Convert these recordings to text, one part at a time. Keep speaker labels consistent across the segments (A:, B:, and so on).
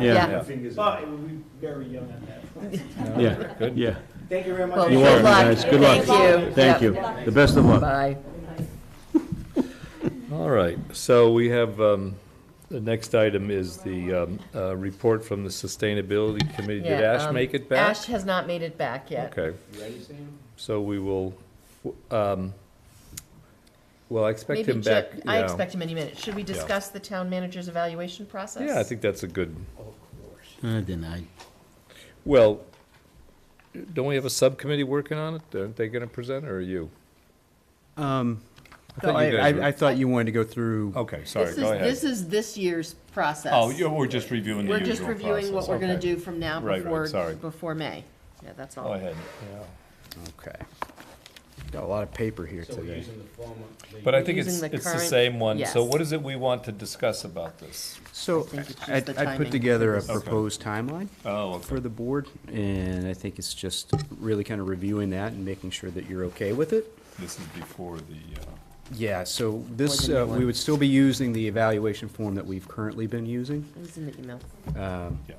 A: Yeah.
B: Yeah.
C: Fingers.
D: But it would be very young at that point.
A: Yeah,
B: Good.
A: yeah.
D: Thank you very much.
B: Well,
A: You
B: Good
A: are,
B: luck.
A: guys. Good luck.
B: Thank
E: you.
A: Thank you.
E: Yep.
A: The best of luck.
B: Bye.
E: All right, so we have, um, the next item is the, um, uh, report from the Sustainability Committee. Did
B: Yeah,
E: Ash
B: um,
E: make it back?
B: Ash has not made it back yet.
E: Okay,
C: You ready, Sam?
E: so we will, um, well, I expect
B: Maybe
E: him
B: Ju-
E: back.
B: I
E: yeah.
B: expect him any minute. Should we discuss the town manager's evaluation process?
E: Yeah, I think that's a good,
A: I deny.
E: well, don't we have a subcommittee working on it? Aren't they gonna present, or are you?
F: Um,
E: I
F: no,
E: thought
F: I,
E: you guys
F: I,
E: were-
F: I thought you wanted to go through.
E: Okay, sorry,
B: This is,
E: go
B: this
E: ahead.
B: is this year's process.
E: Oh, you're, we're just reviewing the
B: We're
E: usual
B: just
E: process.
B: reviewing what we're gonna
E: Okay.
B: do from now
E: Right, right,
B: before,
E: sorry.
B: before May. Yeah, that's
E: Go
B: all.
E: ahead, yeah.
F: Okay. Got a lot of paper here
C: So we're
F: today.
C: using the form of the.
E: But I think it's,
B: Using the
E: it's the
B: current-
E: same one, so
B: yes.
E: what is it we want to discuss about this?
B: I
F: So
B: think it's just
F: I,
B: the
F: I
B: timing.
F: put together a
B: Okay.
F: proposed timeline
E: Oh,
F: for the board, and I think it's just really kind of reviewing that and making sure that you're okay with it.
E: This is before the, uh,
F: Yeah, so this,
B: More than
F: uh, we
B: one.
F: would still be using the evaluation form that we've currently been using.
B: It was in the email.
E: yeah.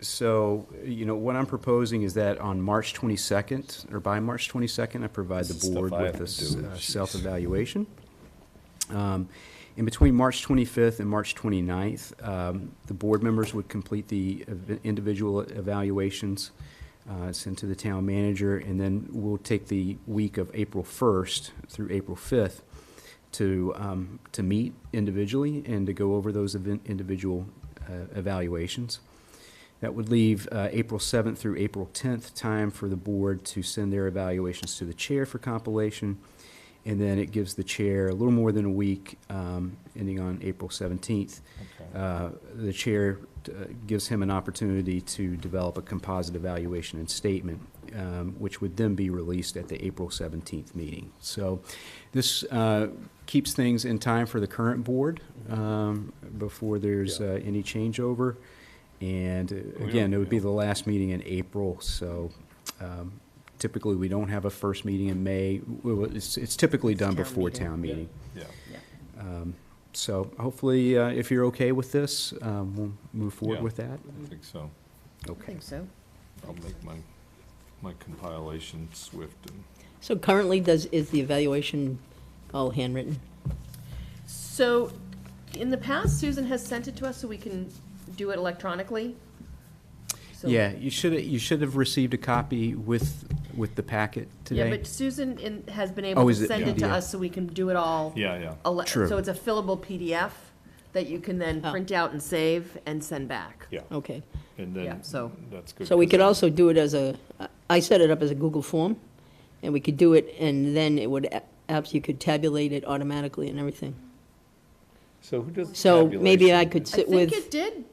F: So, you know, what I'm proposing is that on March 22nd, or by March 22nd, I provide
E: This
F: the
E: is stuff
F: board
E: I
F: with
E: have to
F: this
E: do.
F: uh,
E: Jeez.
F: self-evaluation. Um, In between March 25th and March 29th, um, the board members would complete the ev- individual evaluations uh, sent to the town manager, and then we'll take the week of April 1st through April 5th to, um, to meet individually and to go over those event- individual uh, evaluations. That would leave uh, April 7th through April 10th time for the board to send their evaluations to the chair for compilation. And then it gives the chair a little more than a week, um, ending on April 17th. Uh, The chair uh, gives him an opportunity to develop a composite evaluation and statement, um, which would then be released at the April 17th meeting. So this uh, keeps things in time for the current board um, before there's uh, any changeover. And uh,
E: We
F: again,
E: don't-
F: it would be
E: yeah.
F: the last meeting in April, so um, typically, we don't have a first meeting in May. We will- It's it's typically done
B: Town
F: before
B: meeting.
F: town meeting.
E: Yeah.
B: Yeah.
F: So hopefully, uh, if you're okay with this, um, we'll move forward
E: Yeah.
F: with that.
E: I think so.
B: I
F: Okay.
B: think so.
E: I'll make my, my compilation swift and.
G: So currently, does, is the evaluation all handwritten?
B: So, in the past, Susan has sent it to us so we can do it electronically. So-
F: Yeah, you should, you should have received a copy with, with the packet
B: Yeah,
F: today.
B: but Susan in, has been
F: Oh,
B: able to
F: is it
B: send it to
F: PDF?
B: us so we can do it all.
E: Yeah, yeah.
B: ele-
F: True.
B: So it's a fillable PDF that you can then
G: Oh.
B: print out and save and send back.
E: Yeah,
G: Okay.
E: and
B: Oh. Yeah,
E: then,
B: so-
E: that's good.
G: So we
E: 'cause
G: could
E: then-
G: also do it as a, I set it up as a Google form, and we could do it, and then it would, apps, you could tabulate it automatically and everything.
E: So who does?
G: So maybe I
E: tabulation?
G: could
B: I
G: sit
B: think
G: with.
B: it did.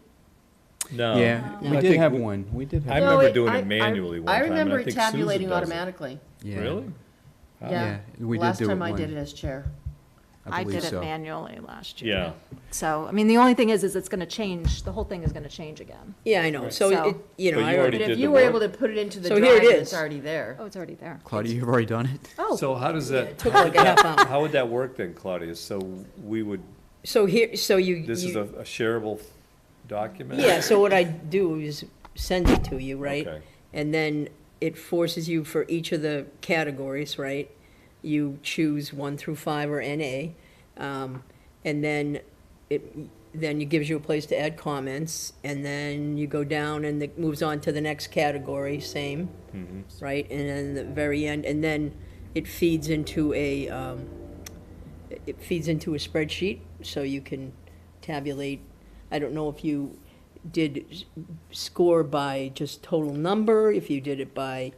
E: No.
F: Yeah,
G: No.
F: we
E: Oh. I
F: did
E: think
F: have
E: we-
F: one. We did
E: I
F: have.
B: No,
E: remember doing
B: I-
E: it manually one
B: I
E: time, and I
B: remember
E: think
B: it
E: Susan
B: tabulating
E: does it.
B: automatically.
F: yeah.
E: Really?
B: Yeah.
F: Yeah, we did
B: Last
F: do
B: time
F: it
B: I did
F: one.
B: it as chair.
F: I
E: I
F: believe
E: did
F: so.
H: manually last year.
E: Yeah.
H: So, I mean, the only thing is, is it's gonna change, the whole thing is gonna change again.
G: Yeah, I know, so
H: So-
G: it, you know,
E: But
G: I
E: you
B: But
E: already did
B: if
E: the
B: you were
E: work.
B: able to put it into the
G: So here
B: drive,
G: it
B: and it's
G: is.
B: already there.
H: Oh, it's already there.
F: Claudia, you've already done it?
H: Oh,
E: So how does that,
G: took like a half hour.
E: how would that work then, Claudia? So we would,
G: So here, so you.
E: this is
G: you-
E: a a shareable document?
G: Yeah, so what I do is send it to you, right?
E: Okay.
G: And then it forces you for each of the categories, right? You choose one through five or NA. um, And then it, then it gives you a place to add comments. And then you go down and it moves on to the next category, same,
E: Mm-hmm.
G: right? And then the very end, and then it feeds into a, um, it feeds into a spreadsheet, so you can tabulate. I don't know if you did s- score by just total number, if you did it by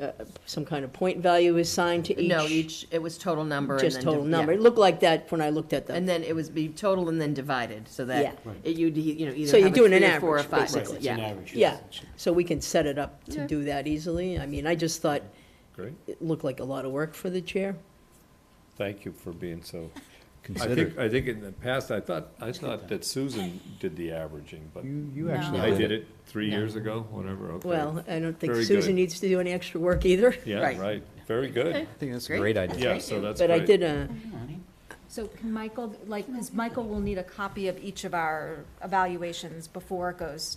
G: uh, some kind of point value assigned to each.
B: No, each, it was total number. and
G: Just
B: then
G: total
B: div-
G: number.
B: yeah.
G: It looked like that when I looked at
B: And
G: the,
B: then it was be total and then divided, so that
G: Yeah.
B: it- you'd, you know, either
G: So you're
B: have a
G: doing an
B: three or four or
G: average,
B: five.
G: basically.
C: Right, it's
B: Yeah.
C: an average.
G: yeah.
C: yes.
G: So we can set it up
B: Yeah.
G: to do that easily. I mean, I just thought
E: Great.
G: it looked like a lot of work for the chair.
E: Thank you for being so. I
F: Considered.
E: think, I think in the past, I thought, I thought that Susan did the averaging, but
F: You, you
H: No.
F: actually
E: I
F: did
E: did
F: it.
E: it three years ago, whatever, okay.
G: Well, I don't think
E: Very
G: Susan
E: good.
G: needs to do any extra work either.
E: Yeah,
B: Right.
E: right, very good.
F: I think that's a
B: Great.
F: great idea.
E: Yeah, so that's
G: But I
E: great.
G: did a,
H: So can Michael, like, because Michael will need a copy of each of our evaluations before it goes